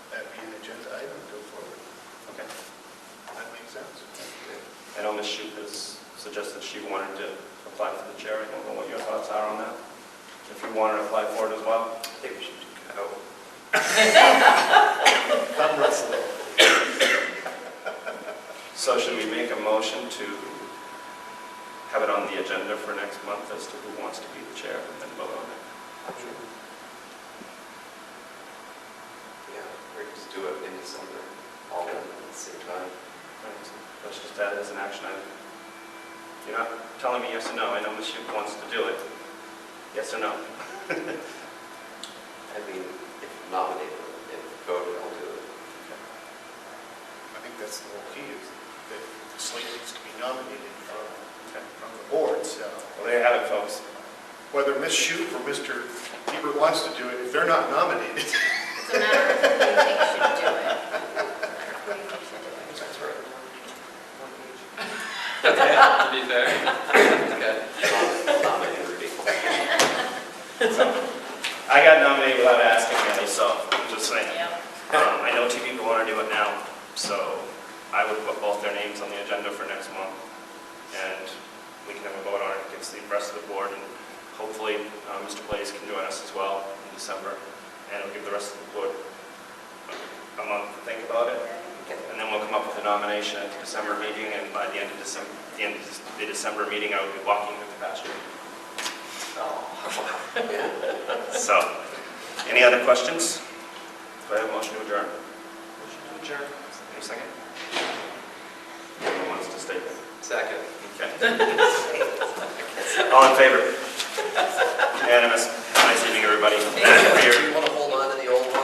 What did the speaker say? Ms. Shoup has suggested she wanted to apply for the chair. I don't know what your thoughts are on that, if you want to apply for it as well. I think we should go. Come wrestle. So should we make a motion to have it on the agenda for next month as to who wants to be the chair and then vote on it? Yeah, we could just do it in December, all of them at the same time. Right, so Let's just add it as an action item. You're not telling me yes or no. I know Ms. Shoup wants to do it. Yes or no? I mean, if nominated and voted, I'll do it. I think that's the whole key, is that Slate needs to be nominated from, Okay. from the board, so. Well, there you have it, folks. Whether Ms. Shoup or Mr. Hebert wants to do it, if they're not nominated, It's a matter of who you think should do it. Who you think should do it. That's right. Okay, to be fair. Okay. Nom- Nominate would be I got nominated without asking really, so I'm just saying. Yeah. Um, I know two people want to do it now, so I would put both their names on the agenda for next month. And we can have a vote on it against the rest of the board, and hopefully uh, Mr. Blaze can join us as well in December. And it'll give the rest of the board a month to think about it. And then we'll come up with a nomination at the December meeting, and by the end of December, the end of the December meeting, I will be walking with the pasture. Oh, yeah. So, any other questions? Do I have a motion to adjourn? Motion to adjourn. Any second? Anyone wants to stay? Second. Okay. All in favor? Unanimous. Nice evening, everybody. if you want to hold